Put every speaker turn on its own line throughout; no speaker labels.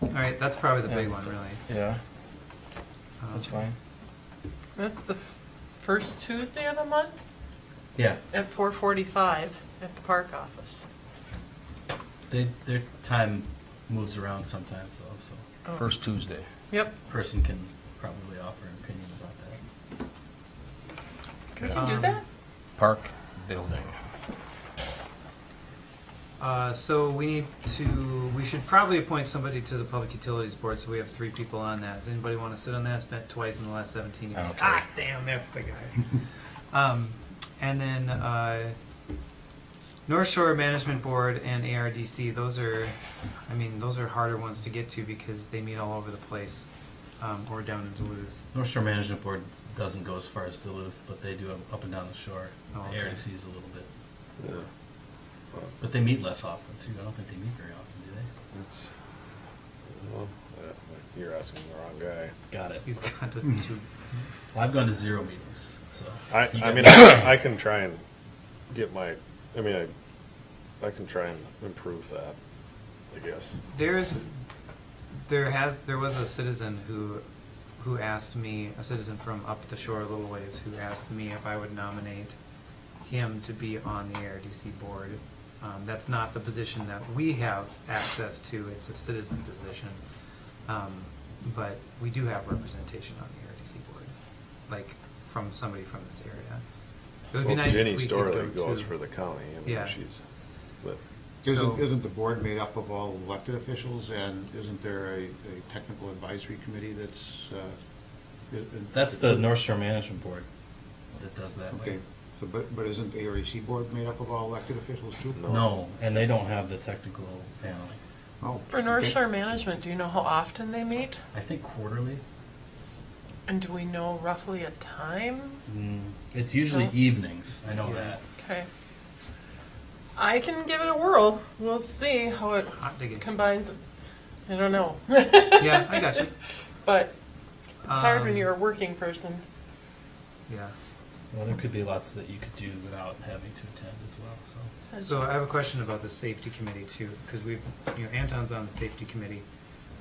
All right, that's probably the big
Yeah.
one, really.
Yeah,
Um,
that's fine.
That's the f- first Tuesday of the month
Yeah,
at four forty-five at the park office.
they, their time moves around sometimes though, so
Oh,
First Tuesday.
Yep,
a person can probably offer an opinion about that.
we can do
Um,
that.
Park building.
Uh, so we need to, we should probably appoint somebody to the Public Utilities Board, so we have three people on that. Does anybody want to sit on that? It's been twice in the last seventeen years.
Okay.
Ah, damn, that's the guy. Um, and then, uh, North Shore Management Board and ARDC, those are, I mean, those are harder ones to get to because they meet all over the place, um, or down in Duluth.
North Shore Management Board doesn't go as far as Duluth, but they do up and down the shore. The
Oh, okay.
ARDC is a little bit, but they meet less often too. I don't think they meet very often, do they?
It's, well, uh, you're asking the wrong
Got it.
He's got to, to-
Well, I've gone to zero meetings, so.
guy. I,
You
I
got-
mean, I, I can try and get my, I mean, I, I can try and improve that, I guess.
There's, there has, there was a citizen who, who asked me, a citizen from up the shore a little ways, who asked me if I would nominate him to be on the ARDC board. Um, that's not the position that we have access to, it's a citizen position. Um, but we do have representation on the ARDC board, like, from somebody from this area. It would be
Well,
nice if we
Jenny
could go
Storley goes
to-
for the county, I
Yeah.
mean, she's, but,
So-
Isn't, isn't the board made up of all elected officials, and isn't there a, a technical advisory committee that's, uh? i- i-
That's the North Shore Management Board that does that.
Okay, so, but, but isn't the ARC board made up of all elected officials too?
No, and they don't have the technical panel.
Oh,
For North
okay.
Shore Management, do you know how often they meet?
I think quarterly.
And do we know roughly a time?
It's usually
No.
evenings. I know
Mm. Yeah.
that.
Okay. I can give it a whirl. We'll see how it
Hot digging.
combines. I don't know.
Yeah, I got you.
But it's hard when
Um,
you're a working person.
Yeah.
Well, there could be lots that you could do without having to attend as well. So
So I have a question about the safety committee too, because we've, you know, Anton's on the safety committee.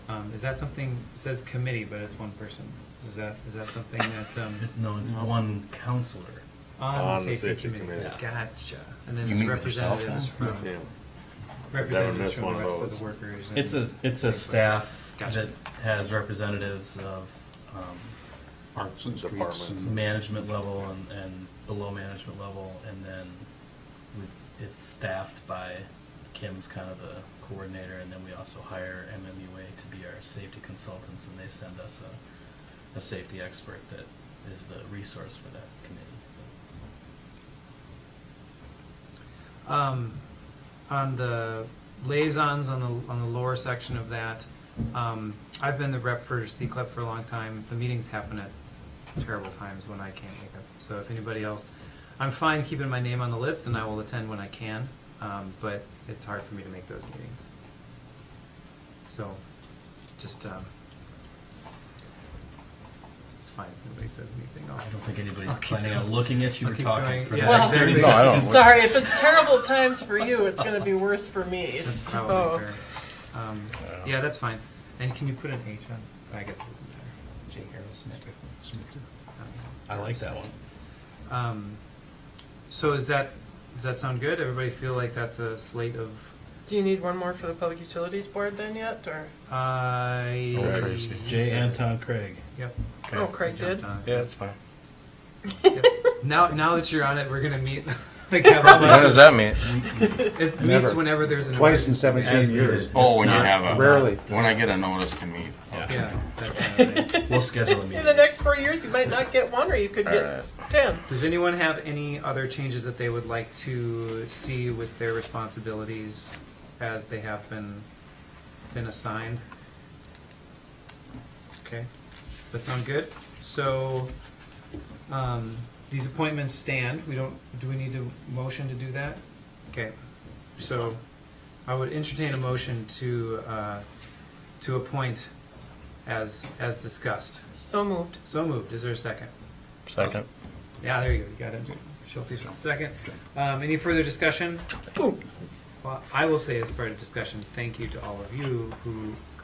Um, is that something, it says committee, but it's one person. Is that, is that something that, um,
no, it's one counselor.
on the safety committee?
committee.
Gotcha. And then
You
there's
meet with yourself
representatives
then?
from,
yeah.
representatives
missed
from the
one
rest
vote.
of the workers. and-
It's a it's a staff
Gotcha.
that has representatives of um,
Parks and streets
Departments.
and.
management level and, and below management level, and then with, it's staffed by Kim's kind of the coordinator, and then we also hire MMUA to be our safety consultants, and they send us a, a safety expert that is the resource for that committee.
Um, on the liaisons on the on the lower section of that, um, I've been the rep for CCLEP for a long time. The meetings happen at terrible times when I can't make up. So if anybody else, I'm fine keeping my name on the list, and I will attend when I can. Um, but it's hard for me to make those meetings. So, just um, it's fine if nobody says anything. I'll-
I don't think anybody's
I'll keep-
planning on looking at you
I'll
or
keep
talking
going.
for the
Yeah,
next thirty
exactly. No, I
seconds.
don't-
Sorry, if it's terrible times for you, it's going to be worse for me.
That's
So.
probably fair. Um, yeah, that's fine. And can you put an H on? I guess it doesn't matter. J. Harrell Smith.
I like that one.
Um, so is that does that sound good? Everybody feel like that's a slate of.
Do you need one more for the Public Utilities Board then yet, or?
I.
Oh, Tracy.
J. Anton Craig.
Yep.
Oh, Craig
Jumped
did?
on it.
Yeah, that's fine.
Yep. Now, now that you're on it, we're gonna meet. like, have a
What does that mean?
bunch of- It meets
Never.
whenever there's an.
Twice in
emergency.
As
17 years.
needed.
Oh, when you
Not
have a.
rarely.
When I get a notice to meet.
Yeah. That kind of thing.
We'll schedule a
In
meeting.
the next four years, you might not get one, or you could get
Alright.
ten.
Does anyone have any other changes that they would like to see with their responsibilities as they have been, been assigned? Okay, that sound good? So, um, these appointments stand, we don't, do we need to motion to do that? Okay, so I would entertain a motion to, uh, to appoint as, as discussed.
So moved.
So moved, is there a second?
Second.
Yeah, there you go, you got it. Schultes with the second. Um, any further discussion? Well, I will say as part of discussion, thank you to all of you who